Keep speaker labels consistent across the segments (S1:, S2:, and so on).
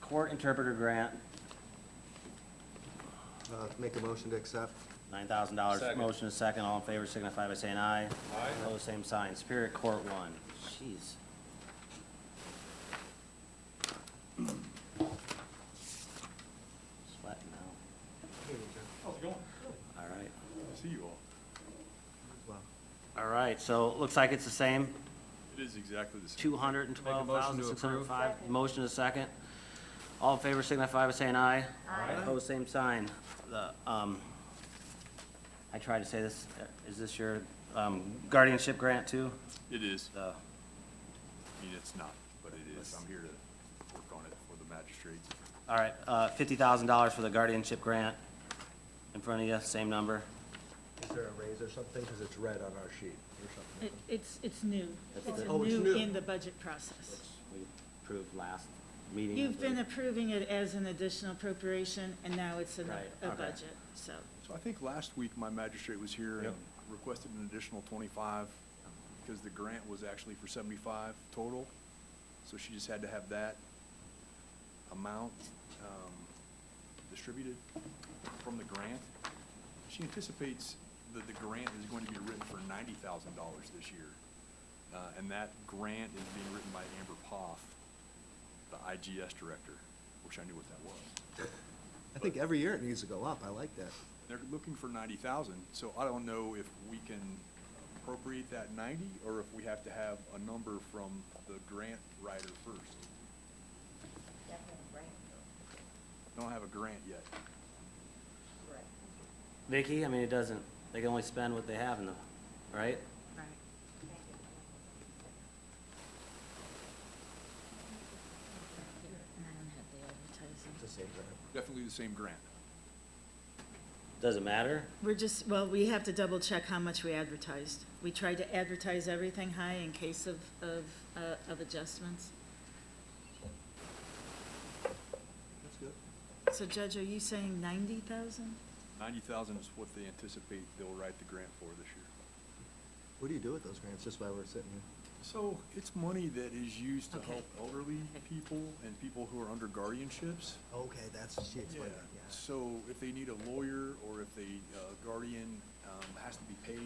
S1: court interpreter grant,
S2: Uh, Make a motion to accept.
S1: nine thousand dollars.
S3: Second.
S1: Motion is second, all in favor signify by saying aye.
S3: Aye.
S1: Opposed, same sign. Superior Court one, jeez. Sweating now,
S3: How's it going?
S1: all right.
S3: Good to see you all.
S2: Wow.
S1: All right, so it looks like it's the same,
S3: It is exactly the same.
S1: two hundred and twelve thousand, six hundred and
S4: Make a motion to
S1: five.
S4: approve.
S1: Motion is second. All in favor signify by saying aye.
S4: Aye.
S1: Opposed, same sign. The, um, I tried to say this, uh, is this your, um, guardianship grant too?
S3: It is. I
S1: The,
S3: mean, it's not, but it is. I'm here to work on it for the magistrate.
S1: all right, uh, fifty thousand dollars for the guardianship grant in front of you, same number.
S2: Is there a raise or something? Because it's red on our sheet or something.
S5: It, it's, it's new.
S1: That's
S5: It's
S1: good.
S2: Oh, it's
S5: new
S2: new.
S5: in the budget process.
S1: We approved last meeting.
S5: You've been approving it as an additional appropriation, and now it's in
S1: Right,
S5: a- a
S1: okay.
S5: budget, so.
S3: So I think last week, my magistrate was here and requested an additional twenty-five because the grant was actually for seventy-five total. So she just had to have that amount um, distributed from the grant. She anticipates that the grant is going to be written for ninety thousand dollars this year. Uh, And that grant is being written by Amber Poff, the IGS director. Wish I knew what that was.
S2: I think every year it needs to go up. I like that.
S3: They're looking for ninety thousand, so I don't know if we can appropriate that ninety, or if we have to have a number from the grant writer first. Don't have a grant yet.
S1: Vicky, I mean, it doesn't, they can only spend what they have in the, right?
S5: Right. And I don't have the advertising.
S2: It's the same grant.
S3: Definitely the same grant.
S1: Does it matter?
S5: We're just, well, we have to double check how much we advertised. We tried to advertise everything high in case of, of, uh, of adjustments.
S2: That's good.
S5: So Judge, are you saying ninety thousand?
S3: Ninety thousand is what they anticipate they'll write the grant for this year.
S2: What do you do with those grants? Just why we're sitting here?
S3: So it's money that is used to
S5: Okay.
S3: help elderly people and people who are under guardianships.
S2: Okay, that's, she
S3: Yeah,
S2: explained that, yeah.
S3: so if they need a lawyer, or if the guardian um, has to be paid,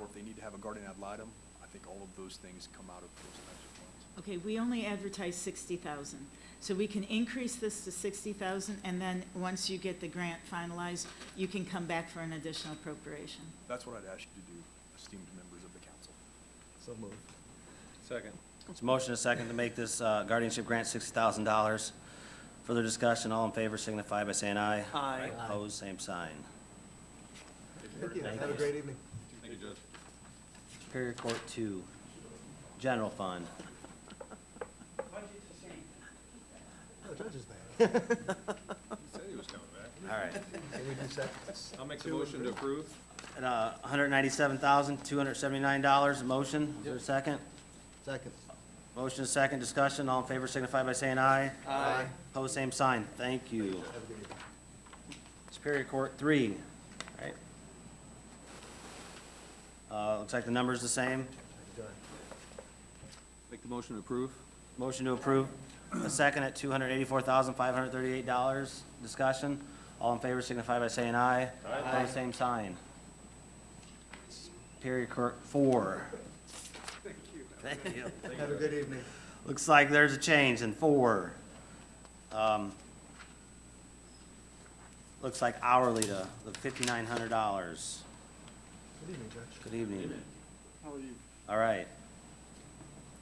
S3: or if they need to have a guardian ad litem, I think all of those things come out of those types of funds.
S5: Okay, we only advertise sixty thousand, so we can increase this to sixty thousand, and then, once you get the grant finalized, you can come back for an additional appropriation.
S3: That's what I'd ask you to do, esteemed members of the council.
S2: So moved.
S1: Second. It's a motion and a second to make this uh, guardianship grant sixty thousand dollars. Further discussion, all in favor signify by saying aye.
S2: Aye.
S1: Opposed, same sign.
S2: Thank you.
S1: Thank
S2: Have a
S1: you.
S2: great evening.
S1: Superior Court two, general fund.
S2: Oh, Judge is back.
S6: Said he was coming back.
S1: All right.
S2: Can we do sec-
S6: I'll make the
S2: two
S6: motion to
S2: approve?
S6: approve.
S1: And, uh, hundred ninety-seven thousand, two hundred seventy-nine dollars, motion, is there a second?
S2: Second.
S1: Motion is second, discussion, all in favor signify by saying aye.
S2: Aye.
S1: Opposed, same sign, thank you.
S2: Have a good evening.
S1: Superior Court three, All right. Uh, looks like the number's the same.
S2: Thank you, John.
S6: Make the motion to approve.
S1: Motion to approve, a second at two hundred eighty-four thousand, five hundred thirty-eight dollars. Discussion, all in favor signify by saying aye. Aye. Opposed, same sign. Superior Court four. Thank you. Thank you.
S2: Have a good evening.
S1: Looks like there's a change in four. Um, Looks like hourly to the fifty-nine hundred dollars.
S2: Good evening, Judge.
S1: Good evening.
S3: How are you?
S1: All right.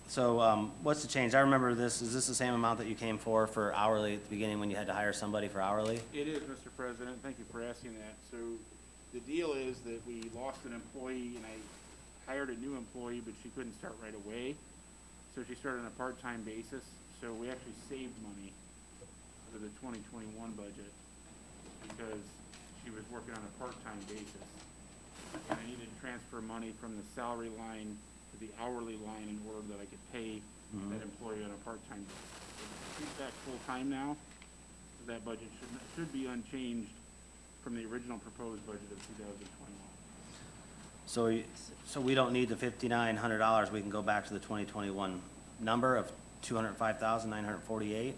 S1: So, um, what's the change? I remember this, is this the same amount that you came for, for hourly at the beginning when you had to hire somebody for hourly?
S7: It is, Mr. President, thank you for asking that. So the deal is that we lost an employee and I hired a new employee, but she couldn't start right away. So she started on a part-time basis, so we actually saved money for the twenty twenty-one budget because she was working on a part-time basis. And I needed to transfer money from the salary line to the hourly line in order that I could pay that employee on a part-time basis. So She's back full-time now, so that budget should, should be unchanged from the original proposed budget of two thousand twenty-one.
S1: So, you- so we don't need the fifty-nine hundred dollars, we can go back to the twenty twenty-one number of two hundred and five thousand, nine hundred and forty-eight?